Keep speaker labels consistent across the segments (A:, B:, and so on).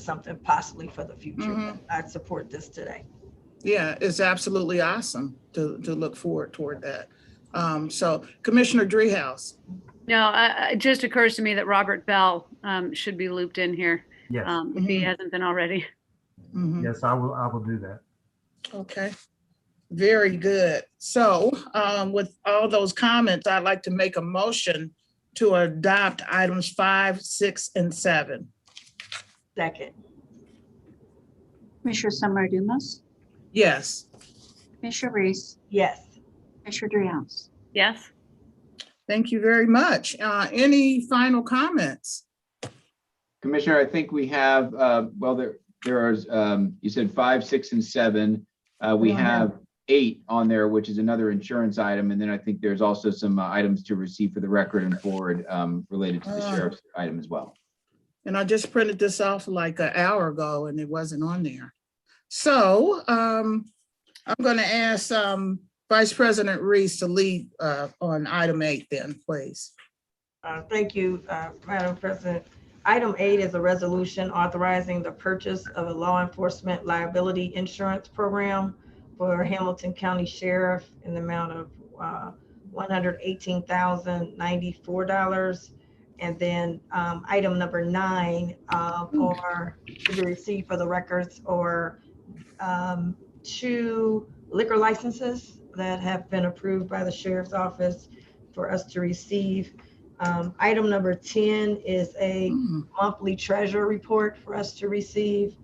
A: something possibly for the future.
B: Mhm.
A: I support this today.
B: Yeah, it's absolutely awesome to, to look forward toward that. Um, so Commissioner Dreehouse,
C: No, I- I- it just occurs to me that Robert Bell um, should be looped in here,
D: Yes,
C: um, if he
B: Mhm.
C: hasn't been already.
B: Mhm,
D: yes, I will, I will do that.
B: okay. Very good. So, um, with all those comments, I'd like to make a motion to adopt items five, six, and seven.
A: Second,
E: Commissioner Summer Dumas,
B: Yes,
E: Commissioner Reese,
A: yes,
E: Commissioner Dreehouse.
C: Yes?
B: thank you very much. Uh, any final comments?
F: Commissioner, I think we have, uh, well, there, there are, um, you said five, six, and seven. Uh, We
B: Yeah.
F: have eight on there, which is another insurance item. And then I think there's also some uh, items to receive for the record and forward um, related to the
B: Ah.
F: sheriff's item as well.
B: And I just printed this off like an hour ago and it wasn't on there. So um, I'm going to ask um, Vice President Reese to lead uh, on item eight then, please.
A: Uh, Thank you, uh, Madam President. Item eight is a resolution authorizing the purchase of a law enforcement liability insurance program for Hamilton County Sheriff in the amount of uh, $118,094. And then um, item number nine uh, are to be received for the records or um, two liquor licenses that have been approved by the sheriff's office for us to receive. Um, Item number 10 is a
B: Mhm.
A: monthly treasure report for us to receive.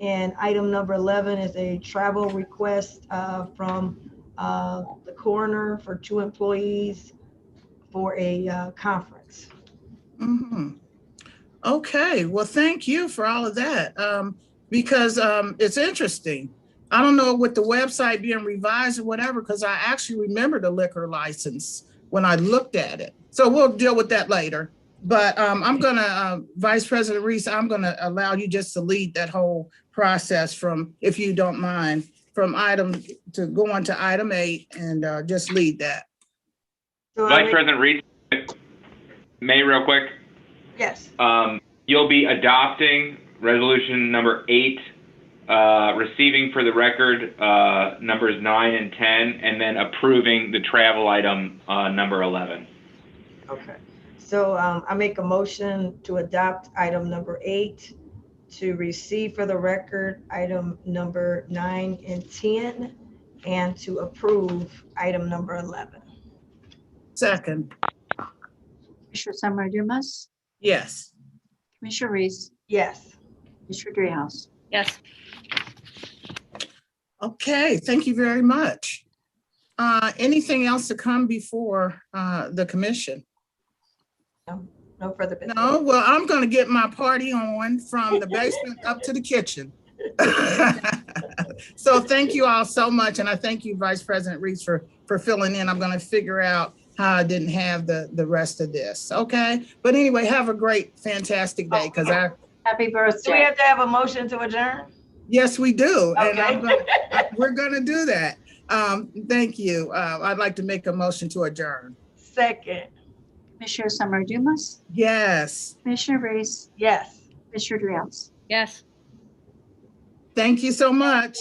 A: And item number 11 is a travel request uh, from uh, the coroner for two employees for a uh, conference.
B: Mhm. Okay, well, thank you for all of that um, because um, it's interesting. I don't know with the website being revised or whatever, because I actually remember the liquor license when I looked at it. So we'll deal with that later. But um, I'm gonna, uh, Vice President Reese, I'm gonna allow you just to lead that whole process from, if you don't mind, from item to go on to item eight and uh, just lead that.
A: So I
G: Vice
A: make-
G: President Reed, May, real quick.
A: Yes,
G: Um, you'll be adopting resolution number eight, uh, receiving for the record uh, numbers nine and 10, and then approving the travel item uh, number 11.
A: okay. So um, I make a motion to adopt item number eight, to receive for the record item number nine and 10, and to approve item number 11.
B: Second,
E: Commissioner Summer Dumas,
B: yes.
E: Commissioner Reese,
A: Yes,
E: Commissioner Dreehouse.
C: Yes.
B: Okay, thank you very much. Uh, Anything else to come before uh, the commission?
A: no further business.
B: No, well, I'm going to get my party on from the basement up to the kitchen. So thank you all so much, and I thank you, Vice President Reese, for, for filling in. I'm going to figure out how I didn't have the, the rest of this, okay? But anyway, have a great, fantastic day, because I,
A: Do
E: Happy
A: we
E: birthday.
A: have to have a motion to adjourn?
B: yes, we do. and I'm
A: Okay.
B: gonna- I- We're going to do that. Um, Thank you. Uh, I'd like to make a motion to adjourn.
A: Second,
E: Commissioner Summer Dumas,
B: Yes.
E: Commissioner Reese,
A: yes.
E: Commissioner Dreehouse.
C: Yes.
B: Thank you so much.